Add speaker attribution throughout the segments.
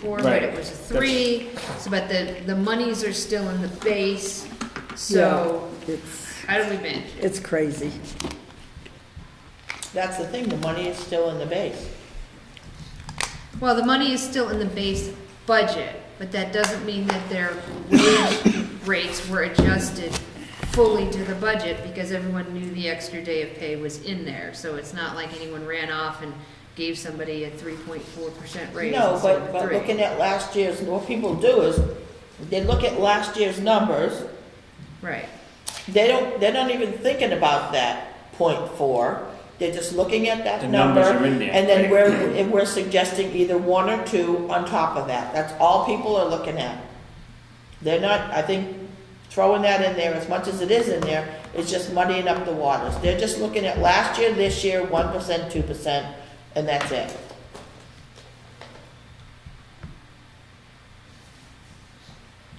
Speaker 1: four, but it
Speaker 2: Right.
Speaker 1: was a three, so, but the, the monies are still in the base, so
Speaker 3: Yeah, It's,
Speaker 1: how do we manage? it?
Speaker 3: it's crazy.
Speaker 4: That's the thing, the money is still in the base.
Speaker 1: Well, the money is still in the base budget, but that doesn't mean that their wage rates were adjusted fully to the budget, because everyone knew the extra day of pay was in there, so it's not like anyone ran off and gave somebody a three point four percent raise
Speaker 4: No,
Speaker 1: instead
Speaker 4: but,
Speaker 1: of
Speaker 4: but
Speaker 1: three.
Speaker 4: looking at last year's, what people do is, they look at last year's numbers,
Speaker 1: Right,
Speaker 4: they don't, they're not even thinking about that point four. They're just looking at that
Speaker 2: The
Speaker 4: number.
Speaker 2: numbers are in there,
Speaker 4: And then
Speaker 2: right.
Speaker 4: we're, and we're suggesting either one or two on top of that. That's all people are looking at. They're not, I think, throwing that in there as much as it is in there, it's just muddying up the waters. They're just looking at last year, this year, one percent, two percent, and that's it.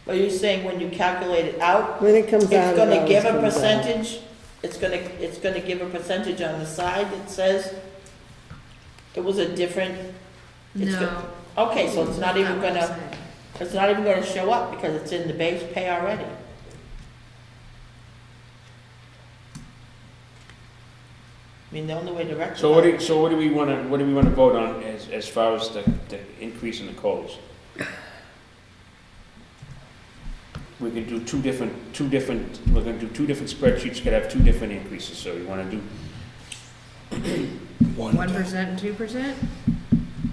Speaker 4: Are you saying when you calculate it out,
Speaker 3: When it comes out.
Speaker 4: it's
Speaker 3: it
Speaker 4: gonna
Speaker 3: always
Speaker 4: give a
Speaker 3: comes out.
Speaker 4: percentage, it's gonna, it's gonna give a percentage on the side that says it was a different. it's
Speaker 1: no.
Speaker 4: go- Okay, so it's not even
Speaker 1: what I'm
Speaker 4: gonna,
Speaker 1: saying.
Speaker 4: it's not even gonna show up because it's in the base pay already. I mean, the only way to rectify.
Speaker 2: So what do, so what do we wanna, what do we wanna vote on as, as far as the, the increase in the COLAs? We can do two different, two different, we're gonna do two different spreadsheets, could have two different increases, so you wanna do,
Speaker 1: One percent and two percent?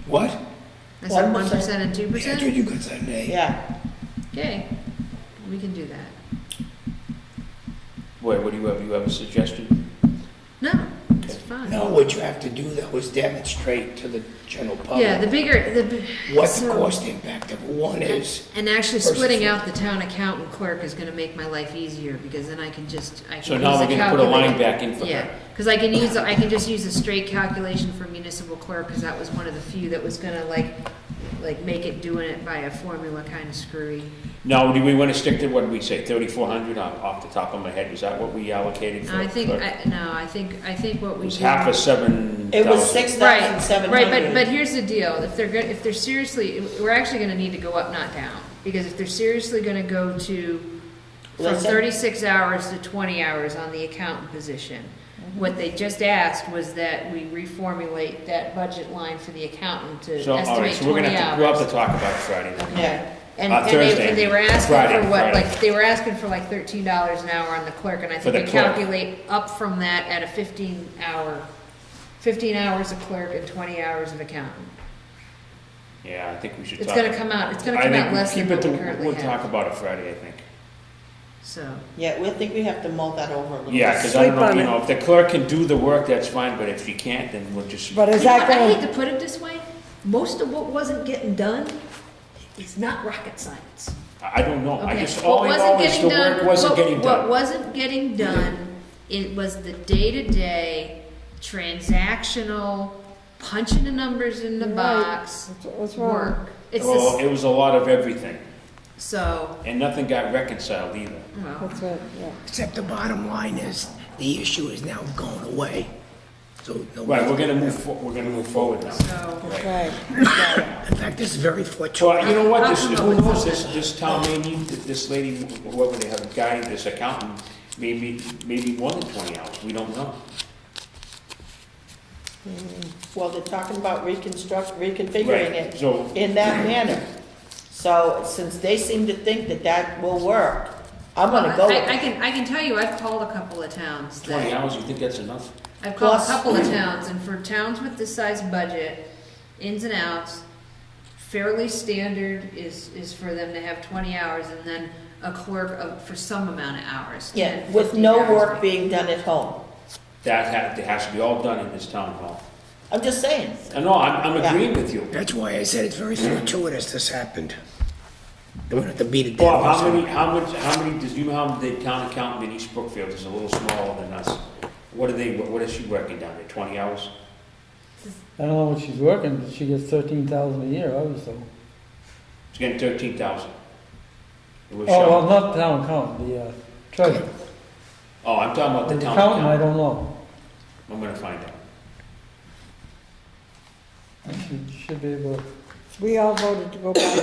Speaker 5: What?
Speaker 1: I said one
Speaker 4: 1%.
Speaker 1: percent and two
Speaker 5: That's what
Speaker 1: percent?
Speaker 5: you got Sunday.
Speaker 4: Yeah,
Speaker 1: Okay, we can do that.
Speaker 2: what, what do you have, you have a suggestion?
Speaker 1: No, it's fine.
Speaker 5: No, what you have to do though is demonstrate to the general
Speaker 1: Yeah, the
Speaker 5: public
Speaker 1: bigger, the.
Speaker 5: what the
Speaker 1: so-
Speaker 5: cost impact of one is.
Speaker 1: And actually
Speaker 5: versus
Speaker 1: splitting
Speaker 5: the-
Speaker 1: out the town accountant clerk is gonna make my life easier, because then I can just, I can.
Speaker 2: So now
Speaker 1: use
Speaker 2: we're
Speaker 1: the
Speaker 2: gonna put a line
Speaker 1: calculator.
Speaker 2: back in for
Speaker 1: Yeah,
Speaker 2: her.
Speaker 1: cause I can use, I can just use a straight calculation for municipal clerk, cause that was one of the few that was gonna like, like make it doing it by a formula kinda screwy.
Speaker 2: Now, do we wanna stick to, what did we say, thirty-four hundred off, off the top of my head, was that what we allocated for?
Speaker 1: I think,
Speaker 2: for-
Speaker 1: I, no, I think, I think what
Speaker 2: It
Speaker 1: we.
Speaker 2: was
Speaker 1: do-
Speaker 2: half a seven thousand.
Speaker 4: it was six thousand seven
Speaker 1: Right,
Speaker 4: hundred.
Speaker 1: right, but, but here's the deal, if they're good, if they're seriously, we're actually gonna need to go up, not down, because if they're seriously gonna go to, from
Speaker 4: Listen.
Speaker 1: thirty-six hours to twenty hours on the accountant position,
Speaker 4: Mm-hmm.
Speaker 1: what they just asked was that we reformulate that budget line for the accountant to
Speaker 2: So, all right,
Speaker 1: estimate
Speaker 2: so we're gonna
Speaker 1: twenty
Speaker 2: have to, we'll have
Speaker 1: hours.
Speaker 2: to talk about it Friday night.
Speaker 4: Yeah,
Speaker 1: And,
Speaker 2: uh,
Speaker 1: and they,
Speaker 2: Thursday,
Speaker 1: and they were asking
Speaker 2: Friday,
Speaker 1: for what,
Speaker 2: Friday.
Speaker 1: like, they were asking for like thirteen dollars an hour on the clerk, and I
Speaker 2: For
Speaker 1: think we
Speaker 2: the clerk.
Speaker 1: calculate up from that at a fifteen hour, fifteen hours of clerk and twenty hours of accountant.
Speaker 2: Yeah, I think we should talk.
Speaker 1: It's gonna come out, it's gonna
Speaker 2: I
Speaker 1: come
Speaker 2: think
Speaker 1: out
Speaker 2: we
Speaker 1: less than
Speaker 2: keep
Speaker 1: what
Speaker 2: it
Speaker 1: we
Speaker 2: to-
Speaker 1: currently
Speaker 2: We'll talk
Speaker 1: have,
Speaker 2: about it Friday, I think.
Speaker 1: so.
Speaker 4: yeah, we think we have to mull that over a little.
Speaker 2: Yeah, because I don't
Speaker 3: Sleep
Speaker 2: know,
Speaker 3: on
Speaker 2: you
Speaker 3: it.
Speaker 2: know, if the clerk can do the work, that's fine, but if she can't, then we'll just,
Speaker 3: But is
Speaker 1: You know
Speaker 3: that
Speaker 1: what, I hate
Speaker 3: going,
Speaker 1: to put it this way, most of what wasn't getting done is not rocket science.
Speaker 2: I I don't know. I
Speaker 1: Okay,
Speaker 2: just,
Speaker 1: what
Speaker 2: all I
Speaker 1: wasn't
Speaker 2: know is
Speaker 1: getting
Speaker 2: the
Speaker 1: done-
Speaker 2: work wasn't
Speaker 1: what-
Speaker 2: getting
Speaker 1: What
Speaker 2: done.
Speaker 1: wasn't getting done, it was the day-to-day transactional, punching the numbers in the
Speaker 3: Right.
Speaker 1: box,
Speaker 3: That's- that's wrong.
Speaker 1: work. It's
Speaker 2: Well,
Speaker 1: this,
Speaker 2: it was a lot of everything,
Speaker 1: so,
Speaker 2: and nothing got reconciled either.
Speaker 1: well,
Speaker 3: that's right, yeah.
Speaker 5: Except the bottom line is, the issue is now going away. So. no-
Speaker 2: Right, we're gonna move, fo- we're gonna move forward now.
Speaker 1: so,
Speaker 3: That's right.
Speaker 5: In fact, this is very
Speaker 2: Well, uh, you
Speaker 5: fortuitous.
Speaker 2: know what, this,
Speaker 1: I'll come
Speaker 2: who
Speaker 1: up with
Speaker 2: knows, this, this town may need, this lady, whoever they have, guy, this accountant, maybe, maybe more than twenty hours, we don't know.
Speaker 4: Well, they're talking about reconstruct, reconfiguring
Speaker 2: Right,
Speaker 4: it
Speaker 2: so,
Speaker 4: in that manner. So since they seem to think that that will work, I'm gonna go with
Speaker 1: I, I
Speaker 4: it.
Speaker 1: can, I can tell you, I've called a couple of towns that.
Speaker 2: twenty hours, you think that's enough?
Speaker 1: I've called a
Speaker 4: Plus-
Speaker 1: couple of towns, and for towns with this size budget, ins and outs, fairly standard is, is for them to have twenty hours and then a clerk of, for some amount of hours.
Speaker 4: Yeah,
Speaker 1: 10,
Speaker 4: with
Speaker 1: 15
Speaker 4: no
Speaker 1: hours.
Speaker 4: work being done at home.
Speaker 2: That has, that has to be all done in this town hall.
Speaker 4: I'm just saying.
Speaker 2: Uh, No, I'm, I'm
Speaker 4: Yeah.
Speaker 2: agreeing with you.
Speaker 5: That's why I said it's very fortuitous this happened. They wouldn't have to beat it down.
Speaker 2: Bob, how many, how much, how many, does you know how the town accountant in East Brookfield is a little smaller than us? What are they, what is she working down there, twenty hours?
Speaker 6: I don't know what she's working, but she gets thirteen thousand a year, obviously.
Speaker 2: Oh, She's getting thirteen thousand. Oh,
Speaker 6: Oh, well, not town accountant, the uh, treasurer.
Speaker 2: Oh, I'm talking about
Speaker 6: The
Speaker 2: the town
Speaker 6: accountant, I
Speaker 2: accountant.
Speaker 6: don't know.
Speaker 2: I'm gonna find out.
Speaker 6: She should be able to
Speaker 3: We all voted to go back